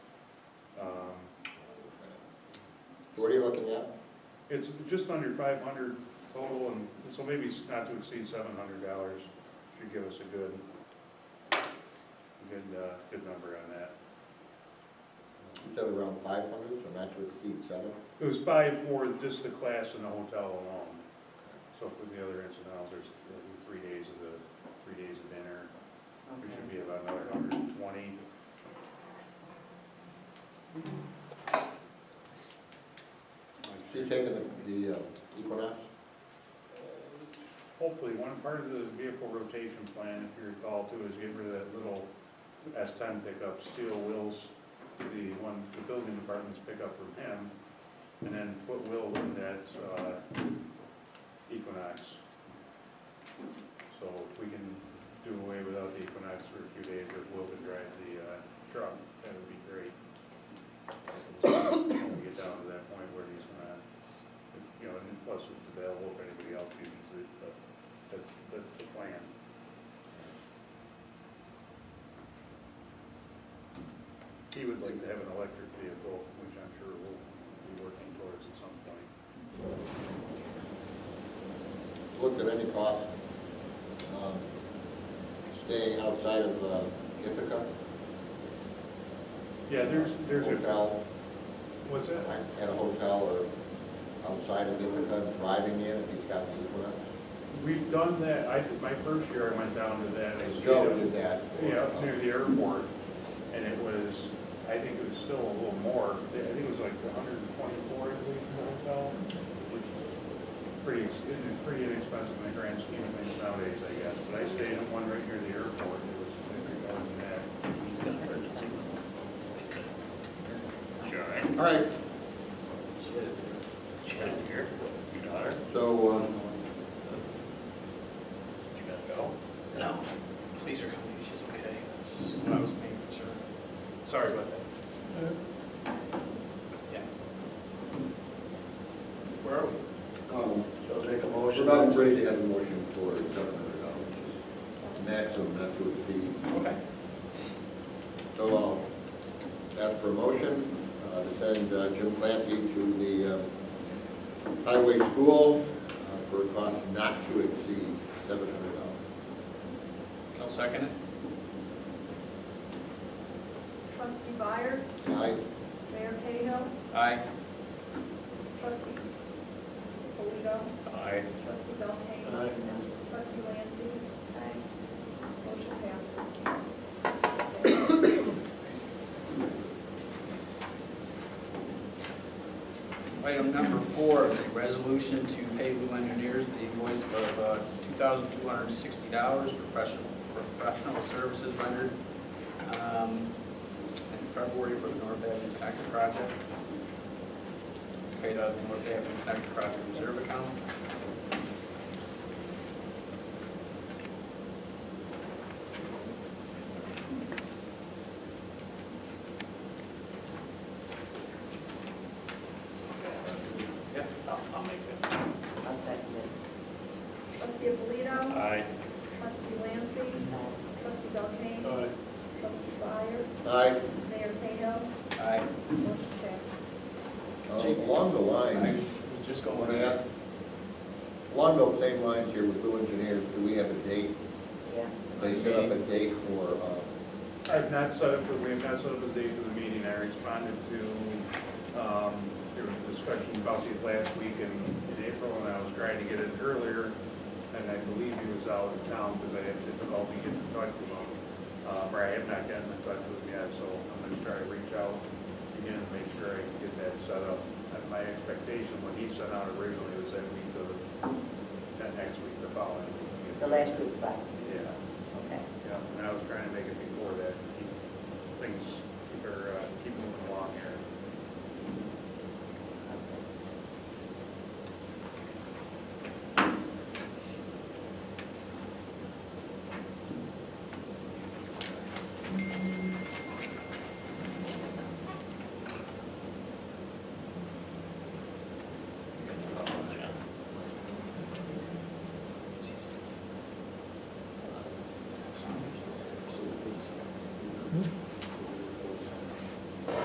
Um, What are you looking at? It's just under five hundred total, and so maybe it's not to exceed seven hundred dollars should give us a good, good, uh, good number on that. You said around five hundred, so not to exceed seven? It was five for just the class and the hotel alone. So for the other incidentals, there's the three days of the, three days of dinner, we should be about another hundred and twenty. So you're taking the- the uh, Equinox? Hopefully, one part of the vehicle rotation plan, if you recall too, is get rid of that little S ten pickup, steel wheels, the one, the building department's pickup from him, and then put Will in that, uh, Equinox. So if we can do away without the Equinox for a few days, if Will can drive the, uh, truck, that would be great. We'll see When we get down to that point where he's gonna you know, and plus it's available if anybody else uses it, but that's, that's the plan. He would like to have an electric vehicle, which I'm sure we'll be working towards at some point. Looked at any cost, um, staying outside of uh, Ithaca? Yeah, there's, there's a, Hotel, what's that? like at a hotel or outside of Ithaca, driving in if he's got the Equinox? We've done that, I, my first year I went down to that, I stayed Joe up- did that. Yeah, up near the airport, and it was, I think it was still a little more, I think it was like hundred and twenty-four, I believe, for the hotel, which is pretty, ex- it is pretty inexpensive in the grand scheme of things nowadays, I guess, but I stayed in one right near the airport, it was, I think, more than that. He's got an emergency room. Sure, right? All right, She got it here, your daughter, so, um, you gotta go. No, please are coming, she's okay, that's what I was being concerned. Sorry about that. Yeah. Where are we? um, So make a We're motion. about ready to have a motion for seven hundred dollars, maximum not to exceed. Okay. So I'll ask for a motion uh, to send uh, Jim Clancy to the uh, highway school uh, for a cost not to exceed seven hundred dollars. I'll second it. Trustee Byers, Aye? Mayor Cahill, Aye. trustee Polito, Aye. trustee Belkane. Aye. Trustee Lancy. Motion passes. Item number four is a resolution to pay Lou Engineers the invoice of uh, $2,260 for professional, professional services rendered um, in February for the North Avenue Connector Project. It's paid out of the North Avenue Connector Project Reserve Account. Yeah. I'll, I'll make it. I'll second it. Trustee Polito, Aye. trustee Lancy, trustee Belkane. Trustee Byers, Aye? Mayor Cahill, Aye. motion passes. Uh, Along the I lines, was just I want to going, ask, along those same lines here with Blue Engineers, do we have a date? Yeah. They set up a date for, uh, I have not set up, we have not set up a date for the meeting, I responded to, um, there was a discussion about these last week in, in April, and I was trying to get it earlier, and I believe he was out of town, because I had difficulty getting in touch with him, uh, or I have not gotten in touch with him yet, so I'm gonna try to reach out again, to make sure I can get that set up. And my expectation, when he sent out originally, was that week of, that next week, the following week. The last group, five, Yeah. okay. Yeah, and I was trying to make it be uh,